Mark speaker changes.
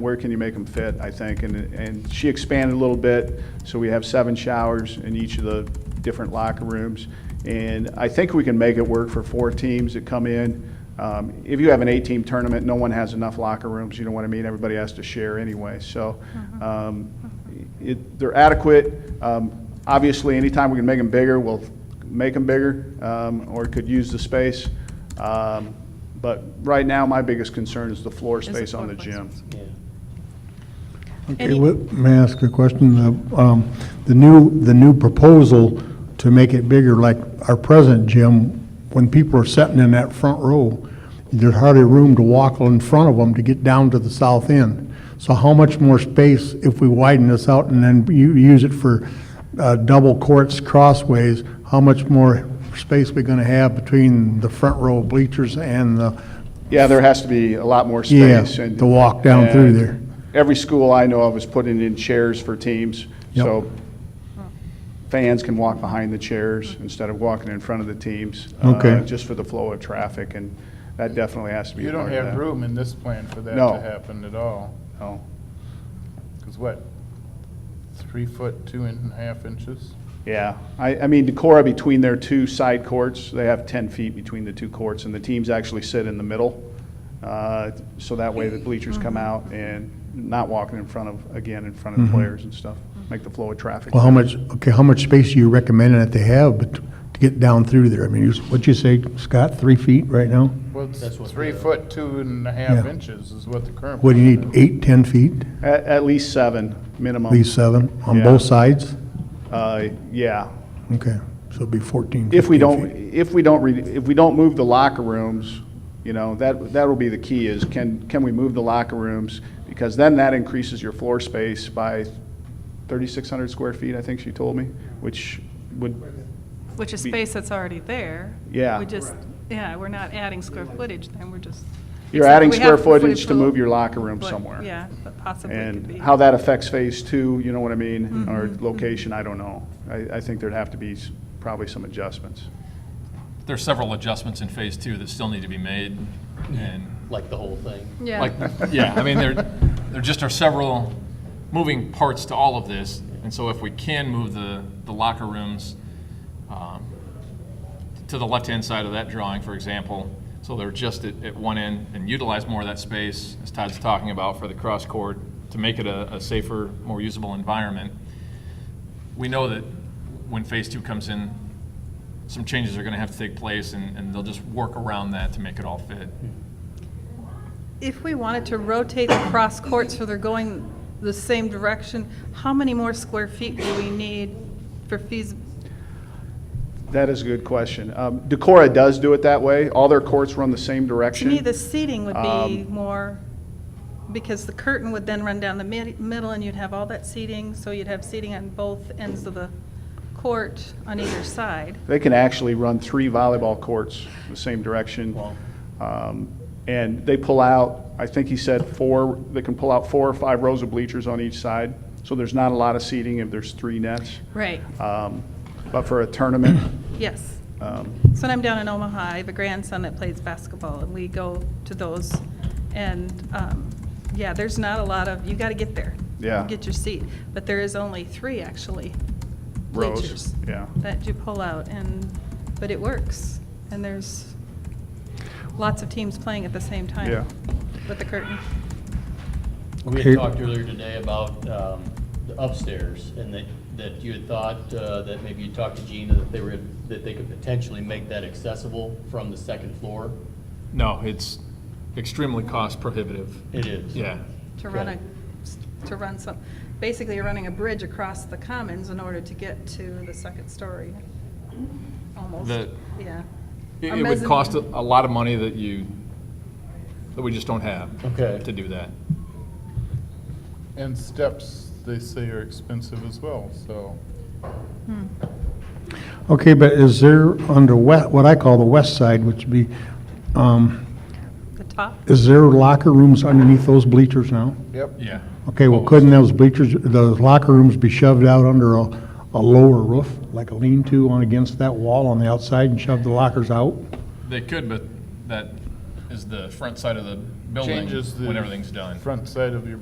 Speaker 1: Where can you make them fit, I think, and, and she expanded a little bit, so we have seven showers in each of the different locker rooms. And I think we can make it work for four teams that come in. Um, If you have an eight-team tournament, no one has enough locker rooms, you know what I mean? Everybody has to share anyway, so,
Speaker 2: Mm-hmm.
Speaker 1: um, it, they're adequate. Um, Obviously, anytime we can make them bigger, we'll make them bigger, um, or could use the space. Um, But right now, my biggest concern is the floor
Speaker 2: the
Speaker 1: space on
Speaker 2: floor
Speaker 1: the
Speaker 2: space.
Speaker 1: gym.
Speaker 2: Any-
Speaker 3: Okay, what- may I ask a question? The um, the new, the new proposal to make it bigger, like our present gym, when people are sitting in that front row, there's hardly room to walk in front of them to get down to the south end. So how much more space if we widen this out and then you use it for uh, double courts, crossways, how much more space we gonna have between the front row bleachers and the,
Speaker 1: Yeah, there has to be a lot more
Speaker 3: Yeah,
Speaker 1: space. and-
Speaker 3: to walk down through
Speaker 1: and
Speaker 3: there.
Speaker 1: Every school I know of is putting in chairs for teams,
Speaker 3: Yep.
Speaker 1: so fans can walk behind the chairs instead of walking in front of the teams. uh,
Speaker 3: Okay.
Speaker 1: Just for the flow of traffic, and that definitely has to be
Speaker 4: You
Speaker 1: a part
Speaker 4: don't
Speaker 1: of that.
Speaker 4: have room in this plan for that
Speaker 1: No.
Speaker 4: to happen at all,
Speaker 1: No.
Speaker 4: because what, three foot, two and a half inches?
Speaker 1: Yeah, I, I mean, Decorah, between their two side courts, they have 10 feet between the two courts, and the teams actually sit in the middle. uh, So that way the bleachers come out and not walking in front of, again, in front of the players and stuff, make the flow of traffic.
Speaker 3: Mm-hmm. Well, how much, okay, how much space do you recommend that they have bet- to get down through there? I mean, you- what'd you say, Scott, three feet right now?
Speaker 4: Well, it's
Speaker 5: That's what
Speaker 4: three
Speaker 5: the-
Speaker 6: uh,
Speaker 4: foot, two and a half
Speaker 3: Yeah.
Speaker 4: inches is what the current.
Speaker 3: What do you
Speaker 4: plan
Speaker 3: need,
Speaker 4: is.
Speaker 3: eight, 10 feet,
Speaker 1: At, at least seven, minimum.
Speaker 3: at least seven, on
Speaker 1: Yeah.
Speaker 3: both sides?
Speaker 1: Uh, Yeah.
Speaker 3: Okay, so it'd be 14, 15
Speaker 1: If we don't,
Speaker 3: feet.
Speaker 1: if we don't, re- if we don't move the locker rooms, you know, that, that'll be the key is can, can we move the locker rooms? Because then that increases your floor space by 3,600 square feet, I think she told me, which would,
Speaker 2: Which is
Speaker 1: Be-
Speaker 2: space that's already there.
Speaker 1: Yeah.
Speaker 2: We just, yeah, we're not adding square footage, then we're just.
Speaker 1: you're
Speaker 2: except
Speaker 1: adding
Speaker 2: we have
Speaker 1: square
Speaker 2: footage
Speaker 1: footage to
Speaker 2: for-
Speaker 1: move your locker room
Speaker 2: but-
Speaker 1: somewhere.
Speaker 2: Yeah, but possibly could be.
Speaker 1: And how that affects phase two, you know what I mean? Or
Speaker 2: Mm-hmm.
Speaker 1: location, I don't know. I, I think there'd have to be s- probably some adjustments.
Speaker 6: There's several adjustments in phase two that still need to be made, and,
Speaker 5: like the whole thing.
Speaker 6: like,
Speaker 2: Yeah,
Speaker 6: yeah, I mean, there, there just are several moving parts to all of this, and so if we can move the, the locker rooms um, to the left-hand side of that drawing, for example, so they're just at, at one end, and utilize more of that space, as Todd's talking about, for the cross-court, to make it a, a safer, more usable environment. We know that when phase two comes in, some changes are gonna have to take place, and, and they'll just work around that to make it all fit.
Speaker 2: if we wanted to rotate the cross courts so they're going the same direction, how many more square feet do we need for fees?
Speaker 1: That is a good question. Um, Decorah does do it that way. All their courts run the same
Speaker 2: To
Speaker 1: direction.
Speaker 2: me, the seating would be
Speaker 1: Um,
Speaker 2: more, because the curtain would then run down the mid- middle, and you'd have all that seating, so you'd have seating on both ends of the court on either side.
Speaker 1: They can actually run three volleyball courts the same direction. Um, And they pull out, I think he said four, they can pull out four or five rows of bleachers on each side. So there's not a lot of seating if there's three nets.
Speaker 2: Right.
Speaker 1: Um, But for a tournament,
Speaker 2: Yes.
Speaker 1: um,
Speaker 2: So when I'm down in Omaha, I have a grandson that plays basketball, and we go to those. And, um, yeah, there's not a lot of, you gotta get there.
Speaker 1: Yeah.
Speaker 2: Get your seat. But there is only three, actually.
Speaker 1: Rows,
Speaker 2: bleachers
Speaker 1: yeah.
Speaker 2: That you pull out, and, but it works. And there's lots of teams playing at the same time.
Speaker 1: Yeah.
Speaker 2: With the curtain.
Speaker 5: We
Speaker 3: Okay.
Speaker 5: had talked earlier today about um, the upstairs, and that, that you had thought, uh, that maybe you talked to Gina, that they were, that they could potentially make that accessible from the second floor.
Speaker 6: No, it's extremely cost prohibitive.
Speaker 5: It is.
Speaker 6: Yeah.
Speaker 2: to run
Speaker 5: Okay.
Speaker 2: a, to run some, basically you're running a bridge across the commons in order to get to the second story, almost,
Speaker 6: The-
Speaker 2: yeah.
Speaker 6: It
Speaker 2: A
Speaker 6: it would cost a
Speaker 2: mezzanine.
Speaker 6: a lot of money that you, that we just don't have.
Speaker 5: Okay.
Speaker 6: To do that.
Speaker 4: And steps, they say are expensive as well, so.
Speaker 3: Okay, but is there under wet, what I call the west side, which would be, um,
Speaker 2: The top,
Speaker 3: is there locker rooms underneath those bleachers now?
Speaker 4: Yep.
Speaker 6: Yeah.
Speaker 3: Okay, well, couldn't those bleachers, those locker rooms be shoved out under a, a lower roof, like a lean-to on against that wall on the outside and shove the lockers out?
Speaker 6: They could, but that is the front side of the building
Speaker 4: Changes the.
Speaker 6: when everything's done.
Speaker 4: Front side of your